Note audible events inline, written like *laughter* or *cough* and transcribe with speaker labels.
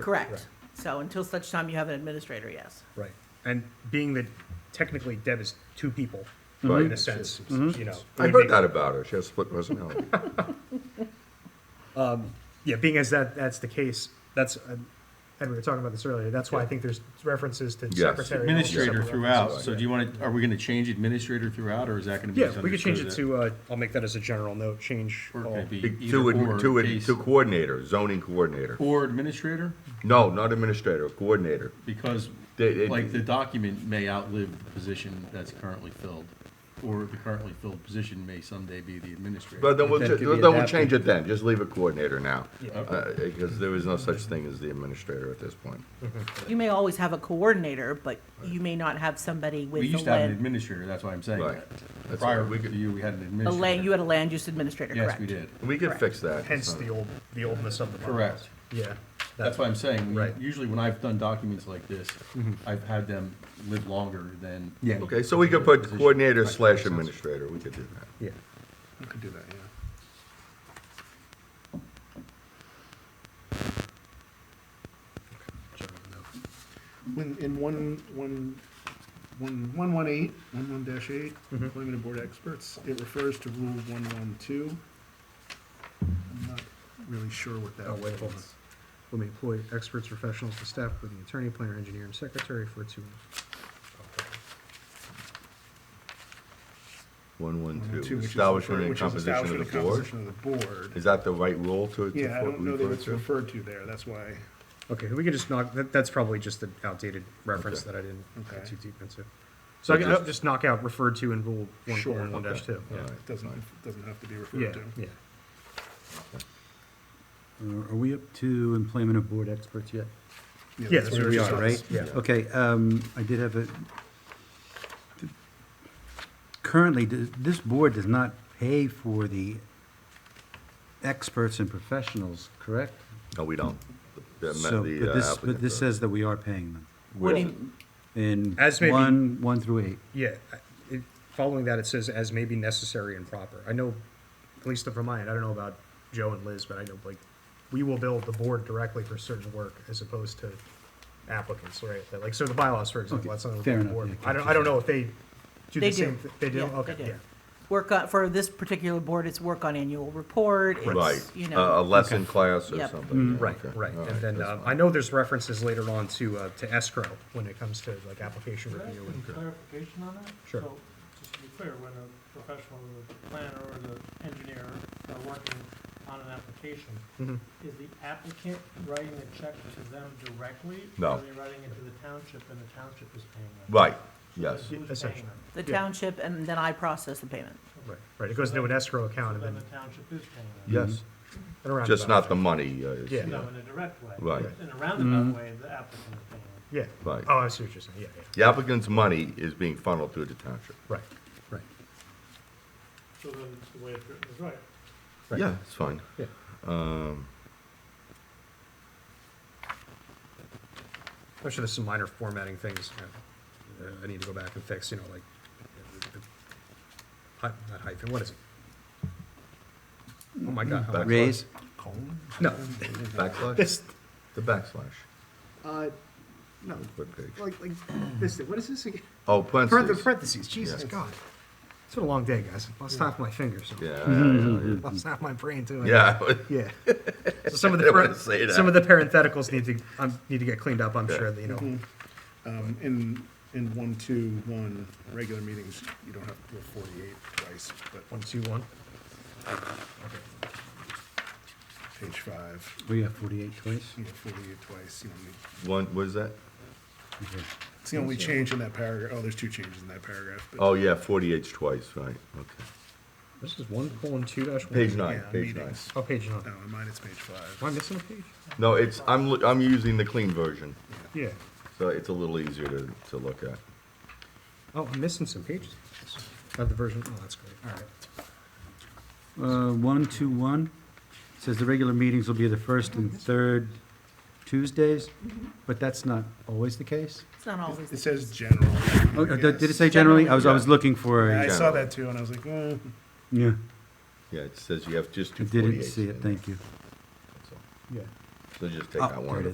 Speaker 1: Correct.
Speaker 2: Right.
Speaker 1: So until such time you have an administrator, yes.
Speaker 2: Right. And being that technically Deb is two people,
Speaker 3: Right.
Speaker 2: in a sense, you know.
Speaker 3: I
Speaker 2: would
Speaker 3: heard
Speaker 2: make-
Speaker 3: that about her. She has split
Speaker 4: *laughs*
Speaker 3: personality.
Speaker 2: Yeah, being as that, that's the case, that's, uh, and we were talking about this earlier, that's why I think there's references to secretary. and all these
Speaker 5: Administrator
Speaker 2: separate
Speaker 5: throughout,
Speaker 2: references.
Speaker 5: so do you want to, are we going to change administrator throughout, or is that going to be
Speaker 2: Yeah, we could change it
Speaker 5: misunderstood
Speaker 2: to, uh, I'll make that as a general note, change
Speaker 5: that- Or
Speaker 2: all.
Speaker 5: could it
Speaker 4: E-,
Speaker 5: be
Speaker 3: Oh, Be-
Speaker 5: either
Speaker 3: To,
Speaker 5: or
Speaker 3: ad- to, ad-
Speaker 5: case-
Speaker 3: to coordinator, zoning coordinator.
Speaker 5: Or administrator,
Speaker 3: No, not administrator, coordinator.
Speaker 5: because
Speaker 3: They- they-
Speaker 5: like the document may outlive the position that's currently filled, or the currently filled position may someday be the administrator.
Speaker 3: But then we'll,
Speaker 6: That
Speaker 3: ju-
Speaker 6: could be
Speaker 3: then we'll
Speaker 6: adapted.
Speaker 3: change it then. Just leave it coordinator now.
Speaker 2: Yeah.
Speaker 3: Uh, Because there is no such thing as the administrator at this point.
Speaker 1: You may always have a coordinator, but you may not have somebody
Speaker 5: We
Speaker 1: with
Speaker 5: used
Speaker 1: the
Speaker 5: to have an
Speaker 1: land.
Speaker 5: administrator, that's why I'm saying
Speaker 3: Right.
Speaker 5: that.
Speaker 3: That's
Speaker 5: Prior
Speaker 3: right. We
Speaker 5: to
Speaker 3: could-
Speaker 5: you, we had
Speaker 1: A
Speaker 5: an
Speaker 1: land, you
Speaker 5: administrator.
Speaker 1: had a land use administrator, correct?
Speaker 5: Yes, we did.
Speaker 4: Mm-hmm.
Speaker 3: We could
Speaker 1: Correct.
Speaker 3: fix that.
Speaker 2: Hence
Speaker 3: It's
Speaker 2: the
Speaker 3: not-
Speaker 2: old, the oldness of the. bylaws.
Speaker 5: Correct.
Speaker 2: Yeah.
Speaker 5: That's why I'm saying, we-
Speaker 2: Right.
Speaker 5: usually when I've done documents like this,
Speaker 3: Mm-hmm.
Speaker 5: I've had them live longer than.
Speaker 6: Yeah.
Speaker 5: any
Speaker 3: Okay, so we could
Speaker 5: particular
Speaker 3: put
Speaker 5: position.
Speaker 3: coordinator
Speaker 5: Right,
Speaker 3: slash
Speaker 5: makes sense.
Speaker 3: administrator. We could do that.
Speaker 6: Yeah,
Speaker 2: We could do that, yeah. General note.
Speaker 4: When, in one, one, one, one one eight, one one dash eight, employment of board experts, it refers to rule one one two. I'm not really sure what that
Speaker 2: Oh, wait, hold
Speaker 4: means.
Speaker 6: will be employed experts, professionals, the staff, including attorney, planner, engineer, and secretary for two.
Speaker 3: One, one,
Speaker 4: One,
Speaker 3: two.
Speaker 4: which is
Speaker 3: Establishment
Speaker 4: refer-
Speaker 3: and
Speaker 4: which is
Speaker 3: composition
Speaker 4: establishment
Speaker 3: of
Speaker 4: and
Speaker 3: the board.
Speaker 4: composition of the board.
Speaker 3: Is that the right rule to? to
Speaker 4: Yeah, I
Speaker 3: fo-
Speaker 4: don't know that
Speaker 3: refer
Speaker 4: it's
Speaker 3: to?
Speaker 4: referred to there, that's why,
Speaker 2: Okay, we could just knock, that, that's probably just an outdated reference
Speaker 3: Okay.
Speaker 2: that I didn't
Speaker 4: Okay.
Speaker 2: get too deep into. So I can
Speaker 3: just-
Speaker 2: I'll just knock out referred to in rule one
Speaker 4: Sure,
Speaker 2: one one dash two.
Speaker 3: All
Speaker 2: Yeah.
Speaker 3: right.
Speaker 4: it doesn't, it doesn't have to be
Speaker 2: Yeah,
Speaker 4: referred to.
Speaker 2: yeah.
Speaker 7: Uh, Are we up to employment of board experts yet?
Speaker 2: Yeah,
Speaker 4: that's
Speaker 2: that's
Speaker 4: what
Speaker 2: where
Speaker 4: it
Speaker 2: we
Speaker 4: just
Speaker 2: are,
Speaker 4: says.
Speaker 7: Right?
Speaker 2: Yeah.
Speaker 7: Okay, um, I did have a, currently, th- this board does not pay for the experts and professionals, correct?
Speaker 3: No, we don't. The-
Speaker 7: So,
Speaker 3: the,
Speaker 7: but
Speaker 3: uh,
Speaker 7: this,
Speaker 3: applicant
Speaker 7: but this
Speaker 3: does.
Speaker 7: says that we are paying them
Speaker 1: What do
Speaker 3: With-
Speaker 1: you-
Speaker 7: in
Speaker 2: As may be-
Speaker 7: one, one through eight.
Speaker 2: Yeah, I- it, following that, it says as may be necessary and proper. I know, at least for mine, I don't know about Joe and Liz, but I know like, we will bill the board directly for certain work as opposed to applicants, right? That, Like, so the bylaws, for
Speaker 7: Okay,
Speaker 2: example, that's something
Speaker 7: fair
Speaker 2: with the
Speaker 7: enough,
Speaker 2: board.
Speaker 7: yeah,
Speaker 2: I don't, I don't know if they do
Speaker 1: They
Speaker 2: the
Speaker 1: do.
Speaker 2: same, thi- they do,
Speaker 1: Yeah,
Speaker 2: okay,
Speaker 1: they do.
Speaker 2: yeah.
Speaker 1: Work on, for this particular board, it's work on annual report,
Speaker 3: Right, Uh,
Speaker 1: it's, you
Speaker 3: a a
Speaker 1: know,
Speaker 3: lesson class or
Speaker 1: Yep.
Speaker 3: something. yeah,
Speaker 2: Mm, Right,
Speaker 3: okay.
Speaker 2: right.
Speaker 3: All
Speaker 2: And then,
Speaker 3: that's
Speaker 2: um, I
Speaker 3: fine.
Speaker 2: know there's references later on to, uh, to escrow when it comes to like application
Speaker 8: Could I ask
Speaker 2: review. and-
Speaker 8: some clarification on that?
Speaker 2: Sure.
Speaker 8: So, just to be clear, when a professional, the planner or the engineer are working on an application,
Speaker 2: Mhm.
Speaker 3: Mm-hmm.
Speaker 8: is the applicant writing the check to them directly?
Speaker 3: No.
Speaker 8: Or are they writing it to the township and the township is paying them?
Speaker 3: Right, yes.
Speaker 8: So Who's paying
Speaker 2: Essentially.
Speaker 8: them?
Speaker 1: the
Speaker 2: yeah.
Speaker 1: township, and then I process the payment.
Speaker 2: Right, right. It goes into an escrow account
Speaker 8: So
Speaker 2: and
Speaker 8: then
Speaker 2: then.
Speaker 8: the township is paying them?
Speaker 3: Yes,
Speaker 2: and around
Speaker 3: just
Speaker 2: about.
Speaker 3: not the money. uh, is-
Speaker 2: Yeah.
Speaker 8: No, in a direct way.
Speaker 3: Right.
Speaker 8: In a roundabout way, the applicant is paying them.
Speaker 2: Yeah.
Speaker 3: Right.
Speaker 2: Oh, I see what you're saying. Yeah, yeah.
Speaker 3: The applicant's money is being funneled through the township.
Speaker 2: Right, right.
Speaker 8: So then it's the way it's written is right.
Speaker 2: Right.
Speaker 3: Yeah, it's fine.
Speaker 2: Yeah.
Speaker 3: Um,
Speaker 2: I'm sure there's some minor formatting things you know, uh, I need to go back and fix, you know, like, uh, the- the hy- not hyphen, what is it? Oh my God. how am I-
Speaker 7: Raise,
Speaker 4: Colon?
Speaker 2: No, *laughs*
Speaker 3: Backslash,
Speaker 2: this,
Speaker 3: the backslash,
Speaker 6: Uh, no,
Speaker 3: what page?
Speaker 6: like, like, this, thing. what is this again?
Speaker 3: Oh,
Speaker 6: Parentheses,
Speaker 3: parentheses.
Speaker 6: parentheses, Jesus
Speaker 3: Yeah.
Speaker 6: God. It's been a long day, guys. Lost half my fingers. so-
Speaker 2: *laughs*
Speaker 3: Yeah,
Speaker 2: Mm-hmm.
Speaker 3: yeah,
Speaker 6: Lost half my brain too.
Speaker 3: yeah, *laughs* yeah.
Speaker 6: Yeah.
Speaker 2: so some of
Speaker 3: I
Speaker 2: the,
Speaker 3: didn't wanna
Speaker 2: paren-
Speaker 3: say that.
Speaker 2: some of the parentheticals need to, um, need to get cleaned up, I'm
Speaker 3: Yeah. Mm-hmm.
Speaker 2: sure, that, you know.
Speaker 4: Um, in, in one, two, one, regular meetings, you don't have to go forty-eight twice, but
Speaker 2: One, two, one.
Speaker 4: page five,
Speaker 7: We have forty-eight twice.
Speaker 4: you know, forty-eight twice, you know, you-
Speaker 3: One, what is that?
Speaker 7: Okay.
Speaker 4: It's the only change in that paragraph. Oh, there's two changes in that paragraph. But
Speaker 3: Oh, yeah, forty-eight's twice, right, okay.
Speaker 2: This is one colon two dash one.
Speaker 3: Page nine,
Speaker 4: Yeah,
Speaker 3: page nine.
Speaker 4: meetings.
Speaker 2: Oh, page
Speaker 4: No,
Speaker 2: nine.
Speaker 4: in mine it's page
Speaker 2: Am I
Speaker 4: five.
Speaker 2: missing a page?
Speaker 3: No, it's, I'm, loo- I'm using the clean version,
Speaker 2: Yeah.
Speaker 3: so it's a little easier to, to look at.
Speaker 2: Oh, I'm missing some pages. Not the version, oh, that's great, all right.
Speaker 7: Uh, one, two, one, says the regular meetings will be the first and third Tuesdays, but that's not always the case.
Speaker 1: It's not always the
Speaker 4: It
Speaker 1: case.
Speaker 4: says general.
Speaker 7: Oh, uh, did did it
Speaker 4: Yes.
Speaker 7: say generally? I was, I was
Speaker 3: Yeah.
Speaker 7: looking for
Speaker 4: Yeah, I
Speaker 7: a,
Speaker 4: saw that too, and I was like, eh.
Speaker 7: yeah,
Speaker 3: Yeah, it says you have just
Speaker 7: I
Speaker 3: two
Speaker 7: didn't
Speaker 3: forty-eights.
Speaker 7: see it,
Speaker 3: in
Speaker 7: thank you.
Speaker 3: there, that's all.
Speaker 2: Yeah.
Speaker 3: So just take
Speaker 7: Oh,
Speaker 3: out
Speaker 7: there
Speaker 3: one of
Speaker 7: it
Speaker 3: the